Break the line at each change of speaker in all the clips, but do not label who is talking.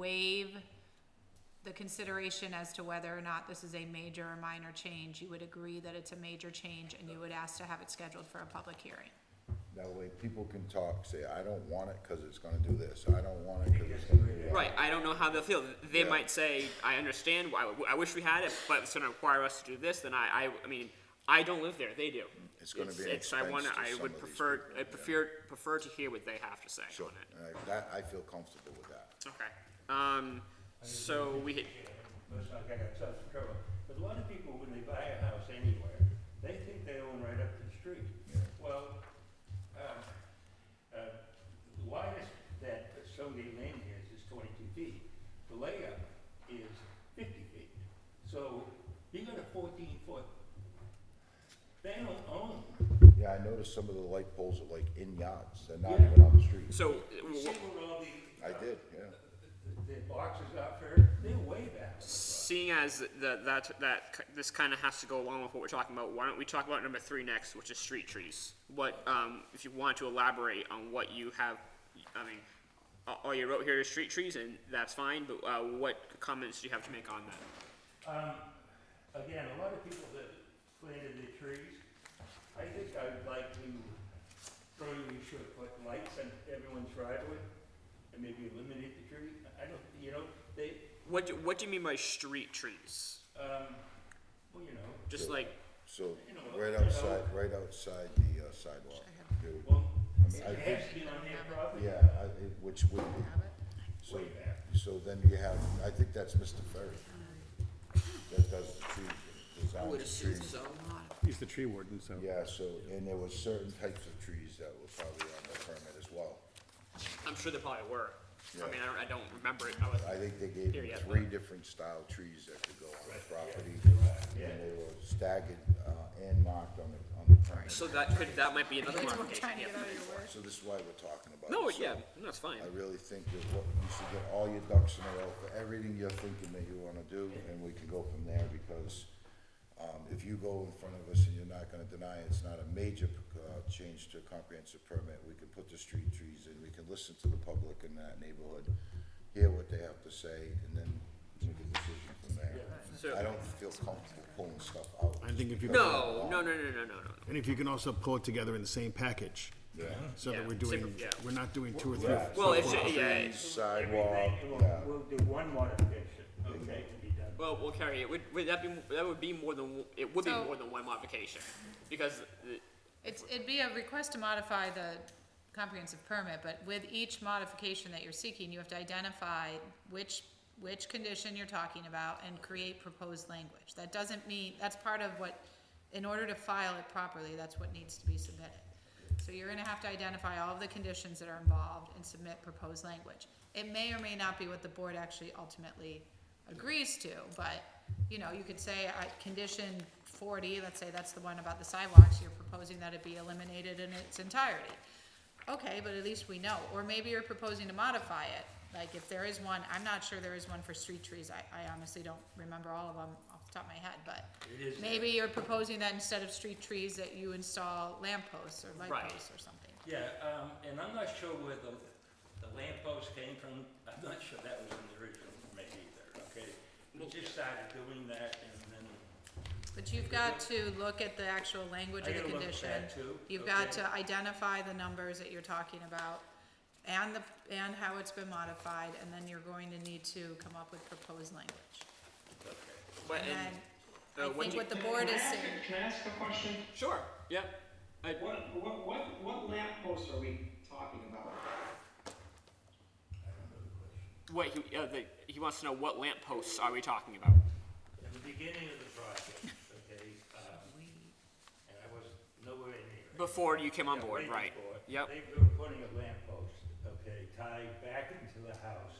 waive the consideration as to whether or not this is a major or minor change, you would agree that it's a major change and you would ask to have it scheduled for a public hearing.
That way people can talk, say, I don't want it because it's gonna do this, I don't want it because it's gonna do that.
Right, I don't know how they'll feel. They
Yeah.
might say, "I understand. I, I wish we had it, but it's going to require us to do this." Then I, I, I mean, I don't live there. They do.
It's gonna be an
I
expense
wanna-
to
I
some
would
of these
prefer.
people,
I
yeah.
prefer prefer to hear what they have to say
Sure,
on it.
All right, that, I feel comfortable with that.
Okay. Um. So we. hit-
Let's not get ourselves in trouble. But a lot of people, when they buy a house anywhere, they think they own right up to the street. Well, uh, uh, the widest that Sony Lane is, is twenty-two feet. The layup is fifty feet. So you got a fourteen foot, they don't own.
Yeah, I noticed some of the light poles are like in yards, they're not
Yeah.
even on the street.
So.
You
w-
see
w-
where all the.
I
uh,
did, yeah.
The the boxes are for, they're way back.
Seeing as that that that k- this kind of has to go along with what we're talking about, why don't we talk about number three next, which is street trees? What, um, if you want to elaborate on what you have, I mean, a- all you wrote here is street trees, and that's fine. But uh, what comments do you have to make on that?
Um, again, a lot of people that planted the trees, I think I'd like to, maybe we should put lights on everyone's driveway and maybe eliminate the tree. I don't, you know, they,
What do, what do you mean by street trees?
um, well, you know,
Just like
So,
You know,
right
you
outside, right outside the uh, sidewalk. dude.
well,
I mean, I
it
think,
has to be on their property.
yeah, I, it- which would be. So,
Way back.
so then you have, I think that's Mr. Ferry. That does the trees, designs the trees.
He's the tree warden, so.
Yeah, so, and there were certain types of trees that were probably on the permit as well.
I'm sure they probably were.
Yeah.
I mean, I don't, I don't remember it. I was,
I think they gave
Here, yeah,
them three different style trees that could go on the property, and they were staggered, uh, and marked on the, on the permit.
so that could that might be another
We're
modification.
trying to get
yeah.
out of your way.
So this is why we're talking about.
No,
it. So
yeah, no, it's fine.
I really think that what, you should get all your ducks in a row for everything you're thinking that you wanna do, and we can go from there, because, um, if you go in front of us and you're not gonna deny it's not a major, uh, change to a comprehensive permit, we can put the street trees in, we can listen to the public in that neighborhood, hear what they have to say, and then make a decision from there.
So-
I don't feel comfortable pulling stuff out.
I think if you-
No, no, no, no, no, no, no. no.
And if you can also pull it together in the same package,
Yeah.
so
Yeah,
that we're doing,
same- yeah.
we're not doing two or three.
Yeah.
Well, it's yeah.
Trees,
it's-
Sidewalk,
Everything, we'll,
yeah.
we'll do one modification, okay, to be done.
Well, well, Carrie, it would, would that be that would be more than it would be
So-
more than one modification because the,
It's, it'd be a request to modify the comprehensive permit, but with each modification that you're seeking, you have to identify which, which condition you're talking about and create proposed language. That doesn't mean, that's part of what, in order to file it properly, that's what needs to be submitted. So you're gonna have to identify all of the conditions that are involved and submit proposed language. It may or may not be what the board actually ultimately agrees to, but, you know, you could say, I, condition forty, let's say that's the one about the sidewalks, you're proposing that it be eliminated in its entirety. Okay, but at least we know, or maybe you're proposing to modify it, like if there is one, I'm not sure there is one for street trees, I, I honestly don't remember all of them off the top of my head, but.
It is there.
Maybe you're proposing that instead of street trees, that you install lamp posts or light
Right.
posts or something.
Yeah, um, and I'm not sure where the, the lamppost came from, I'm not sure that was in the original permit either, okay? We just started doing that and then,
But you've got to look at the actual language
I
of the
gotta look at
condition.
that too,
You've got
okay.
to identify the numbers that you're talking about and the, and how it's been modified, and then you're going to need to come up with proposed language.
okay.
but
And
and,
then, I
uh, what
think
do you-
what the board
Can I
is
ask
saying,
a- Can I ask a question?
sure, yeah. I,
What, what, what, what lamp posts are we talking about?
what he uh, the, he wants to know what lamp posts are we talking about?
At the beginning of the project, okay, um, and I was nowhere near it.
Before you came on
Yeah,
board,
way
right?
before.
Yep.
They were putting a lamp post, okay, tied back into the house.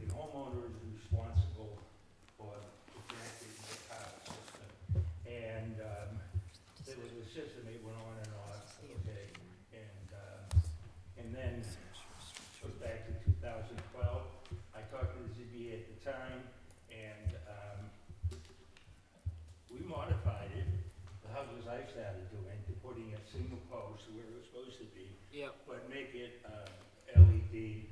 The homeowner is responsible for the connecting the power system. And, um, there was a system, it went on and off, okay, and, uh, and then it was back to two thousand twelve. I talked to the ZBA at the time, and, um, we modified it, the houses I started doing, to putting a single post where it was supposed to be,
Yep.
but make it, uh, LED